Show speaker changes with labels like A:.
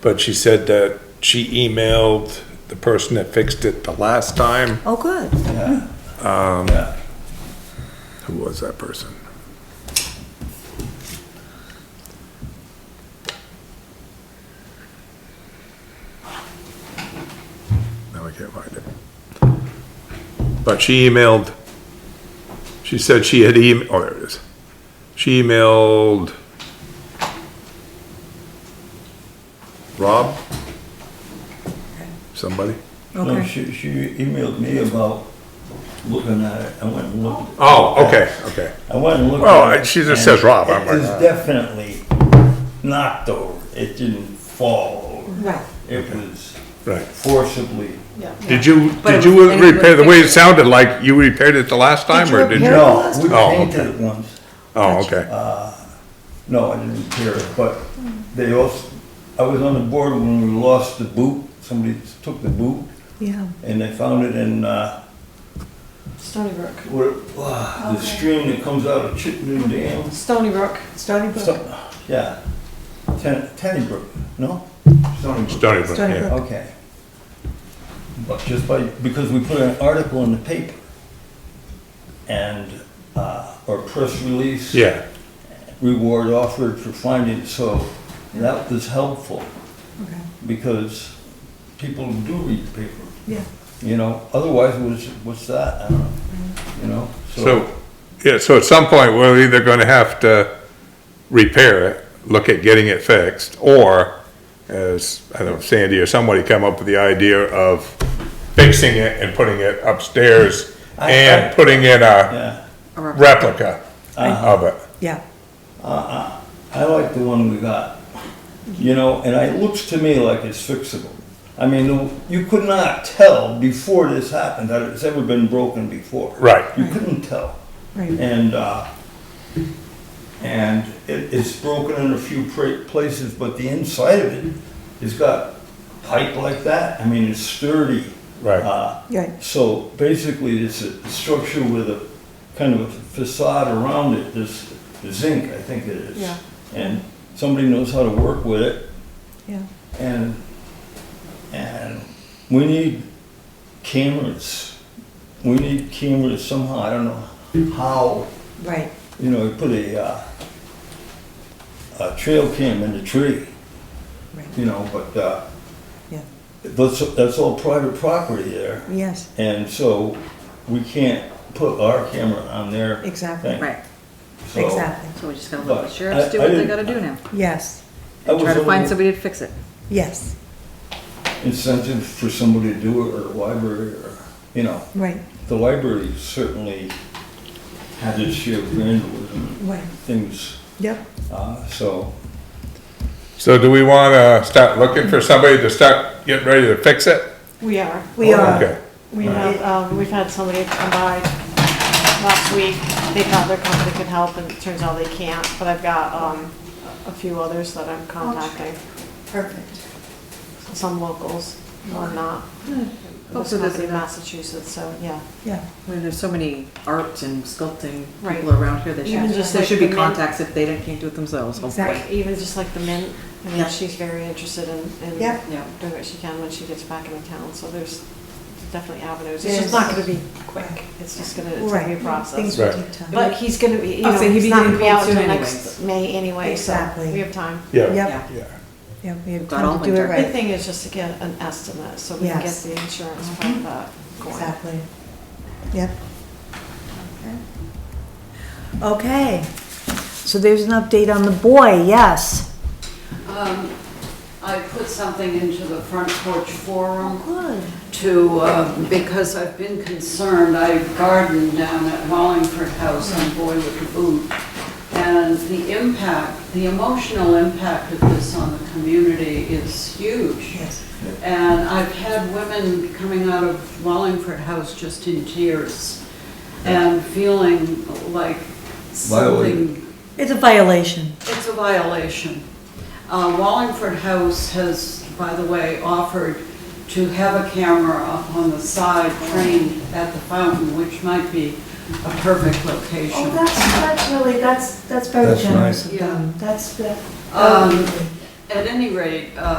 A: But she said that she emailed the person that fixed it the last time.
B: Oh, good.
C: Yeah.
A: Who was that person? Now I can't find it. But she emailed, she said she had em, oh, there it is. She emailed Rob? Somebody?
C: So
B: Okay.
C: she, she emailed me about looking at it, I went and looked.
A: Oh, okay, okay.
C: I went and looked.
A: Well,
C: at it,
A: I- she just
C: and
A: says Rob, I'm
C: It
A: like,
C: was
A: ah.
C: definitely knocked over, it didn't fall over.
B: Right.
C: It was
A: Right.
C: forcibly,
A: Did you, did
B: But it was-
A: you
B: and it was
A: repair, the way it
B: fixed.
A: sounded like you repaired it the last time,
B: you
A: or did
B: repair
A: you?
B: it? Uh,
C: no, we
A: Oh,
C: painted it once.
A: Oh, okay,
C: No, I didn't hear it, but they also, I was on the board when we lost the boot, somebody took the boot,
B: Yeah.
C: and they found it in, uh,
D: Stony Brook.
C: where, uh, the stream that comes out of Chittenden Dam.
D: Stony Brook.
B: Stony Brook.
C: Some- Yeah, Ten, Tenny Brook, no? Stony Brook.
A: Stony Brook,
B: Stony
A: yeah.
B: Brook.
C: Okay. But just by, because we put an article in the paper and, uh, or press release.
A: Yeah,
C: Reward offered for finding, so that was helpful.
B: Okay.
C: because people do read the paper,
B: Yeah.
C: you know, otherwise what's, what's that, I don't know, you know?
A: so, yeah, so at some point, we're either gonna have to repair it, look at getting it fixed, or as, I don't know, Sandy or somebody come up with the idea of fixing it and putting it upstairs
C: I-
A: and
C: I-
A: putting in a
C: Yeah,
A: replica
B: Uh-huh.
A: of it.
B: Yeah.
C: I like the one we got, you know, and it looks to me like it's fixable. I mean, you could not tell before this happened that it's ever been broken before.
A: Right.
C: You couldn't tell.
B: Right.
C: And, uh, and it, it's broken in a few pra- places, but the inside of it has got pipe like that. I mean, it's sturdy.
A: Right.
C: Uh,
B: Right.
C: So basically, it's a structure with a kind of a facade around it, this zinc, I think it is.
B: Yeah.
C: And somebody knows how to work with it,
B: Yeah.
C: and, and we need cameras. We need cameras somehow, I don't know how,
B: Right.
C: you know, we put a, uh, a trail cam in the tree,
B: Right.
C: you know, but, uh,
B: Yeah.
C: that's, that's all private property there.
B: Yes.
C: And so we can't put our camera on their
B: Exactly.
C: thing.
D: Right.
C: So
B: Exactly.
D: So we just gotta
C: But
D: let the sheriffs
C: I-
D: do
C: I
D: what they
C: didn't-
D: gotta do now.
B: Yes.
C: That was
D: Try
C: a
D: to find
C: little
D: somebody to fix it.
B: Yes.
C: incentive for somebody to do it or the library or, you know,
B: Right.
C: the library certainly had its share of vandalism
B: Right.
C: things,
B: Yep.
C: uh, so.
A: So do we wanna start looking for somebody to start getting ready to fix it?
E: We are.
B: We are.
A: Oh, Okay.
E: We have, um, we've had somebody come by last week. They thought their company could help and it turns out they can't, but I've got, um, a few others
B: Oh,
E: that I'm contacting,
D: Perfect.
E: some locals, one not. This
D: Also
E: company
D: does
E: in
D: it.
E: Massachusetts, so, yeah.
B: Yeah.
D: I mean, there's so many art and sculpting
E: Right.
D: people around here that
E: Even
D: should,
E: just
D: there
E: like
D: should be
E: the men-
D: contacts if they don't- can't do it themselves, hopefully.
B: Exactly.
E: Even just like the mint, I mean,
D: Yeah.
E: she's very interested in, in
B: Yeah.
D: Yeah.
E: doing what she can when she gets back into town, so there's definitely avenues. It's
B: Yes.
E: just not gonna be quick. It's just gonna, it's gonna be a
B: Right.
E: process.
B: Things will
A: Right.
B: take time.
E: But he's gonna be, you
D: I'll
E: know,
D: say he'd
E: he's
D: be
E: not
D: getting
E: gonna be
D: cold
E: out
D: soon
E: until
D: anyways.
E: next May anyway, so
B: Exactly.
E: we have time.
A: Yeah,
B: Yep.
A: yeah.
B: Yeah. We have
D: We've got all
B: time to do it
D: winter.
E: The
B: right.
E: big thing is just to get an estimate, so we can get
B: Yes. Mm-hmm.
E: the insurance from that going.
B: Exactly. Yep. Okay. So there's an update on the boy. Yes.
F: Um, I put something into the front porch forum
B: Good.
F: to, uh, because I've been concerned, I gardened down at Wallingford House on Boy with the Boot. And the impact, the emotional impact of this on the community is huge.
B: Yes.
F: And I've had women coming out of Wallingford House just in tears and feeling like
C: Violated.
F: something
B: It's a violation.
F: it's a violation. Uh, Wallingford House has, by the way, offered to have a camera up on the side trained at the fountain, which might be a perfect
B: Oh,
F: location.
B: that's, that's really, that's, that's very
C: That's
B: generous
F: nice.
B: of them. That's, that.
F: Um, At any rate, uh,